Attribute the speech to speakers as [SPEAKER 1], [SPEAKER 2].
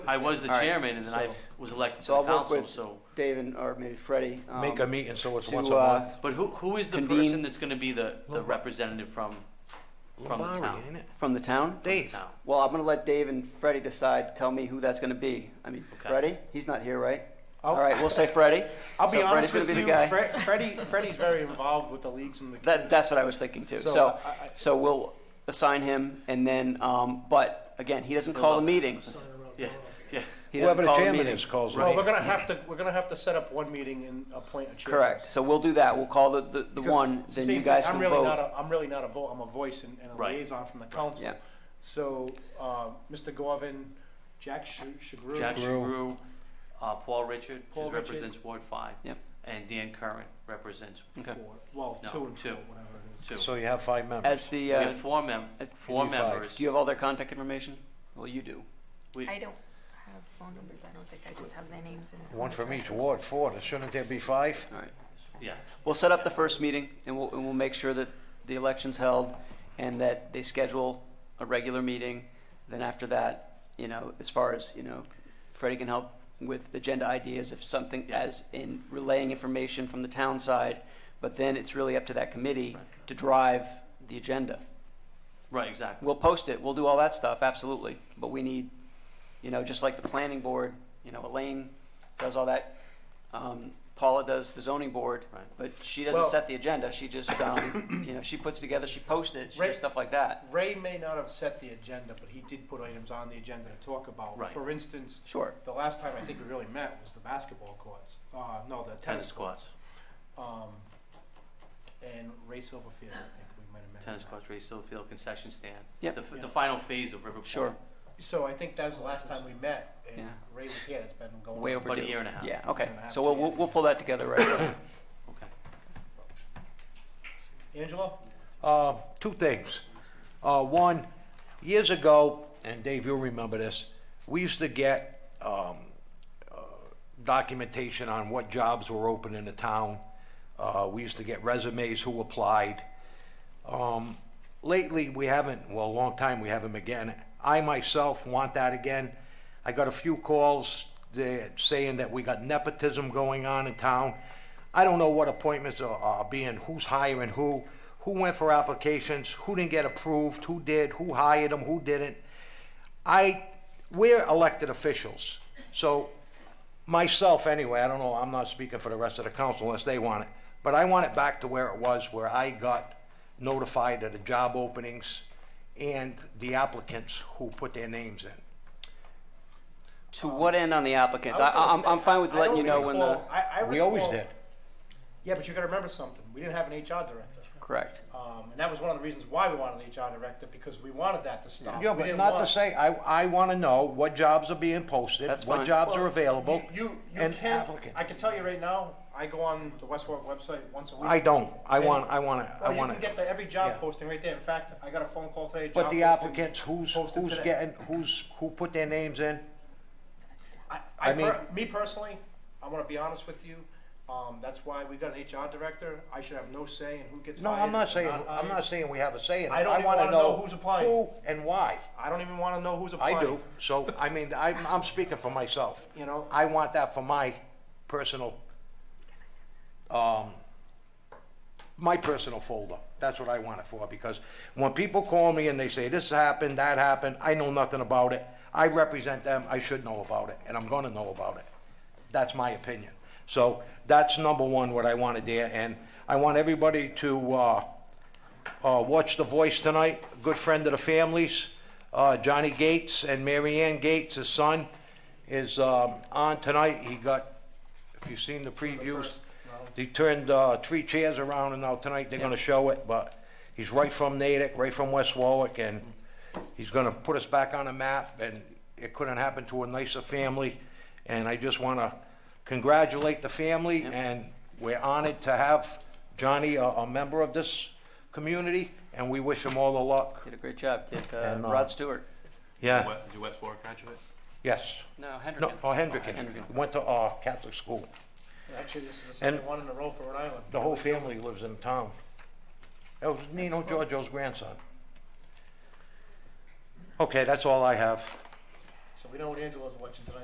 [SPEAKER 1] I was the
[SPEAKER 2] All right,
[SPEAKER 1] chairman and then I
[SPEAKER 2] so-
[SPEAKER 1] was elected to
[SPEAKER 2] So
[SPEAKER 1] the
[SPEAKER 2] I'll work
[SPEAKER 1] council,
[SPEAKER 2] with
[SPEAKER 1] so.
[SPEAKER 2] Dave and, or maybe Freddie. um,
[SPEAKER 3] Make a meeting, so it's
[SPEAKER 2] to,
[SPEAKER 3] once a
[SPEAKER 2] uh,
[SPEAKER 3] month.
[SPEAKER 1] But who, who is the
[SPEAKER 2] Convene-
[SPEAKER 1] person that's gonna be the, the
[SPEAKER 3] Lombardi.
[SPEAKER 1] representative from, from the
[SPEAKER 3] Lombardi,
[SPEAKER 1] town?
[SPEAKER 3] ain't it?
[SPEAKER 2] From the town?
[SPEAKER 1] From the
[SPEAKER 3] Dave.
[SPEAKER 1] town?
[SPEAKER 2] Well, I'm gonna let Dave and Freddie decide, tell me who that's gonna be. I mean,
[SPEAKER 1] Okay.
[SPEAKER 2] Freddie, he's not here, right?
[SPEAKER 4] I'll-
[SPEAKER 3] Oh.
[SPEAKER 2] All right, we'll say Freddie.
[SPEAKER 4] I'll
[SPEAKER 2] So
[SPEAKER 4] be
[SPEAKER 2] Freddie's
[SPEAKER 4] honest
[SPEAKER 2] gonna
[SPEAKER 4] with
[SPEAKER 2] be the
[SPEAKER 4] you.
[SPEAKER 2] guy.
[SPEAKER 4] Fre- Freddie, Freddie's very involved with the leagues and the.
[SPEAKER 2] That, that's what I was thinking too.
[SPEAKER 4] So,
[SPEAKER 2] So,
[SPEAKER 4] I- I-
[SPEAKER 2] so we'll assign him and then, um, but again, he doesn't call the meetings.
[SPEAKER 4] eh?
[SPEAKER 1] Yeah, yeah.
[SPEAKER 2] He
[SPEAKER 3] Whoever
[SPEAKER 2] doesn't
[SPEAKER 3] the
[SPEAKER 2] call the
[SPEAKER 3] chairman is
[SPEAKER 2] meetings.
[SPEAKER 3] calls
[SPEAKER 4] well, we're
[SPEAKER 3] it.
[SPEAKER 4] gonna have to we're gonna have to set up one meeting and appoint a chair.
[SPEAKER 2] Correct. So we'll do that. We'll call the, the, the
[SPEAKER 4] Because
[SPEAKER 2] one,
[SPEAKER 4] it's the
[SPEAKER 2] then
[SPEAKER 4] same
[SPEAKER 2] you
[SPEAKER 4] thing.
[SPEAKER 2] guys
[SPEAKER 4] I'm
[SPEAKER 2] can
[SPEAKER 4] really not
[SPEAKER 2] vote.
[SPEAKER 4] a, I'm really not a vote. I'm a voice and, and a
[SPEAKER 1] Right.
[SPEAKER 4] liaison from the council.
[SPEAKER 2] Yeah.
[SPEAKER 4] So, uh, Mr. Gorvin, Jack Sh- Shagru,
[SPEAKER 1] Jack
[SPEAKER 3] Grew.
[SPEAKER 1] Shagru, uh, Paul Richard,
[SPEAKER 4] Paul
[SPEAKER 1] who
[SPEAKER 4] Richard.
[SPEAKER 1] represents Ward Five.
[SPEAKER 2] Yep.
[SPEAKER 1] And Dan Curran represents
[SPEAKER 2] Okay.
[SPEAKER 4] four, well,
[SPEAKER 1] No,
[SPEAKER 4] two and
[SPEAKER 1] two.
[SPEAKER 4] four, whatever it is.
[SPEAKER 1] two.
[SPEAKER 3] So you have five members.
[SPEAKER 2] As the,
[SPEAKER 1] We
[SPEAKER 2] uh,
[SPEAKER 1] have four mem,
[SPEAKER 2] as-
[SPEAKER 1] four
[SPEAKER 3] You do five.
[SPEAKER 1] members.
[SPEAKER 2] do you have all their contact information? Well, you do.
[SPEAKER 1] We-
[SPEAKER 5] I don't have phone numbers, I don't think, I just have their names and.
[SPEAKER 3] One from each
[SPEAKER 5] addresses.
[SPEAKER 3] ward, four. Shouldn't there be five?
[SPEAKER 2] All right.
[SPEAKER 1] Yeah,
[SPEAKER 2] We'll set up the first meeting and we'll, and we'll make sure that the election's held and that they schedule a regular meeting. Then after that, you know, as far as, you know, Freddie can help with agenda ideas if something,
[SPEAKER 1] Yeah.
[SPEAKER 2] as in relaying information from the town side. But then it's really up to that committee to drive the agenda.
[SPEAKER 1] right, exactly.
[SPEAKER 2] We'll post it, we'll do all that stuff, absolutely. But we need, you know, just like the planning board, you know, Elaine does all that. Um, Paula does the zoning board.
[SPEAKER 1] Right.
[SPEAKER 2] But she doesn't
[SPEAKER 4] Well-
[SPEAKER 2] set the agenda, she just, um, you know, she puts together, she posts it, she
[SPEAKER 4] Right.
[SPEAKER 2] does stuff like that.
[SPEAKER 4] Ray may not have set the agenda, but he did put items on the agenda to talk about.
[SPEAKER 1] Right.
[SPEAKER 4] For instance,
[SPEAKER 2] Sure.
[SPEAKER 4] the last time I think we really met was the basketball courts. Uh, no, the tennis,
[SPEAKER 1] Tennis courts,
[SPEAKER 4] Um, and Ray Silverfield, I think we might have met.
[SPEAKER 1] tennis courts, Ray Silverfield concession stand.
[SPEAKER 2] Yep.
[SPEAKER 1] The, f-
[SPEAKER 4] Yeah.
[SPEAKER 1] the final phase of River Point.
[SPEAKER 2] Sure.
[SPEAKER 4] So I think that was the last time we met, and
[SPEAKER 2] Yeah.
[SPEAKER 4] Ray was here. It's been going
[SPEAKER 2] Way
[SPEAKER 4] on.
[SPEAKER 2] overdue.
[SPEAKER 1] About a year and a half.
[SPEAKER 2] Yeah, okay,
[SPEAKER 4] Year and a half,
[SPEAKER 2] so we'll,
[SPEAKER 4] two
[SPEAKER 2] we'll,
[SPEAKER 4] years.
[SPEAKER 2] we'll pull that together right away.
[SPEAKER 1] Okay.
[SPEAKER 4] Angelo,
[SPEAKER 3] Uh, two things. Uh, one, years ago, and Dave, you'll remember this, we used to get, um, uh, documentation on what jobs were open in the town. Uh, we used to get resumes who applied. Um, lately, we haven't, well, a long time, we haven't again. I myself want that again. I got a few calls uh, saying that we got nepotism going on in town. I don't know what appointments are, are being, who's hiring who, who went for applications, who didn't get approved, who did, who hired them, who didn't. I, we're elected officials, so myself anyway, I don't know, I'm not speaking for the rest of the council unless they want it, but I want it back to where it was, where I got notified of the job openings and the applicants who put their names in.
[SPEAKER 2] To what end on the applicants?
[SPEAKER 4] I
[SPEAKER 2] I,
[SPEAKER 4] was gonna
[SPEAKER 2] I'm,
[SPEAKER 4] say,
[SPEAKER 2] I'm fine with
[SPEAKER 4] I
[SPEAKER 2] letting you
[SPEAKER 4] don't
[SPEAKER 2] know when the,
[SPEAKER 4] recall- I, I
[SPEAKER 3] We always
[SPEAKER 4] recall-
[SPEAKER 3] did.
[SPEAKER 4] Yeah, but you got to remember something. We didn't have an HR director,
[SPEAKER 2] correct.
[SPEAKER 4] um, and that was one of the reasons why we wanted an HR director because we wanted that to stop.
[SPEAKER 3] Yeah,
[SPEAKER 4] We
[SPEAKER 3] but
[SPEAKER 4] didn't
[SPEAKER 3] not to
[SPEAKER 4] want-
[SPEAKER 3] say, I, I wanna know what jobs are being posted,
[SPEAKER 2] That's fine.
[SPEAKER 3] what jobs
[SPEAKER 4] Well,
[SPEAKER 3] are available,
[SPEAKER 4] You, you, you
[SPEAKER 3] and
[SPEAKER 4] can.
[SPEAKER 3] applicant.
[SPEAKER 4] I can tell you right now. I go on the Westworld website once a week.
[SPEAKER 3] I don't, I
[SPEAKER 4] And-
[SPEAKER 3] want, I wanna, I
[SPEAKER 4] Well, you
[SPEAKER 3] wanna,
[SPEAKER 4] can get the every job
[SPEAKER 3] yeah.
[SPEAKER 4] posting right there. In fact, I got a phone call today.
[SPEAKER 3] but
[SPEAKER 4] job
[SPEAKER 3] the
[SPEAKER 4] posting-
[SPEAKER 3] applicants, who's,
[SPEAKER 4] posted
[SPEAKER 3] who's
[SPEAKER 4] today.
[SPEAKER 3] getting, who's, who put their names in?
[SPEAKER 4] I,
[SPEAKER 3] I
[SPEAKER 4] I per-
[SPEAKER 3] mean-
[SPEAKER 4] me personally, I want to be honest with you. Um, that's why we got an HR director. I should have no say in who gets
[SPEAKER 3] No,
[SPEAKER 4] hired
[SPEAKER 3] I'm not
[SPEAKER 4] or
[SPEAKER 3] saying, I'm
[SPEAKER 4] hired.
[SPEAKER 3] not saying we have a say in it.
[SPEAKER 4] I don't even
[SPEAKER 3] wanna
[SPEAKER 4] wanna know who's applying.
[SPEAKER 3] Who and why.
[SPEAKER 4] I don't even want to know who's applying.
[SPEAKER 3] I do, so, I mean, I'm, I'm speaking for myself.
[SPEAKER 4] You know?
[SPEAKER 3] I want that for my personal, um, my personal folder. That's what I want it for, because when people call me and they say, this happened, that happened, I know nothing about it. I represent them, I should know about it, and I'm gonna know about it. That's my opinion. So, that's number one, what I wanted there, and I want everybody to, uh, uh, watch The Voice tonight, good friend of the family's, uh, Johnny Gates and Mary Ann Gates, his son, is um, on tonight. He got, if you've seen the previews, he turned uh, three chairs around, and now tonight they're going to show it, but he's right from Natick, right from West Warwick, and he's going to put us back on the map, and it couldn't happen to a nicer family, and I just want to congratulate the family, and we're honored to have Johnny, a, a member of this community, and we wish him all the luck.
[SPEAKER 2] Did a great job, did, uh,
[SPEAKER 3] And, uh,
[SPEAKER 2] Rod Stewart.
[SPEAKER 3] Yeah,
[SPEAKER 6] Is he West Warwick graduate?
[SPEAKER 3] yes.
[SPEAKER 2] No,
[SPEAKER 3] No,
[SPEAKER 2] Hendricken.
[SPEAKER 3] oh, Hendricken,
[SPEAKER 2] Hendricken.
[SPEAKER 3] went to, uh, Catholic school.
[SPEAKER 4] Actually, this is the second
[SPEAKER 3] And-
[SPEAKER 4] one in a row for Rhode Island.
[SPEAKER 3] The whole family lives in town. That was Nino Giorgio's grandson. Okay, that's all I have.
[SPEAKER 4] So we know Angela's watching tonight.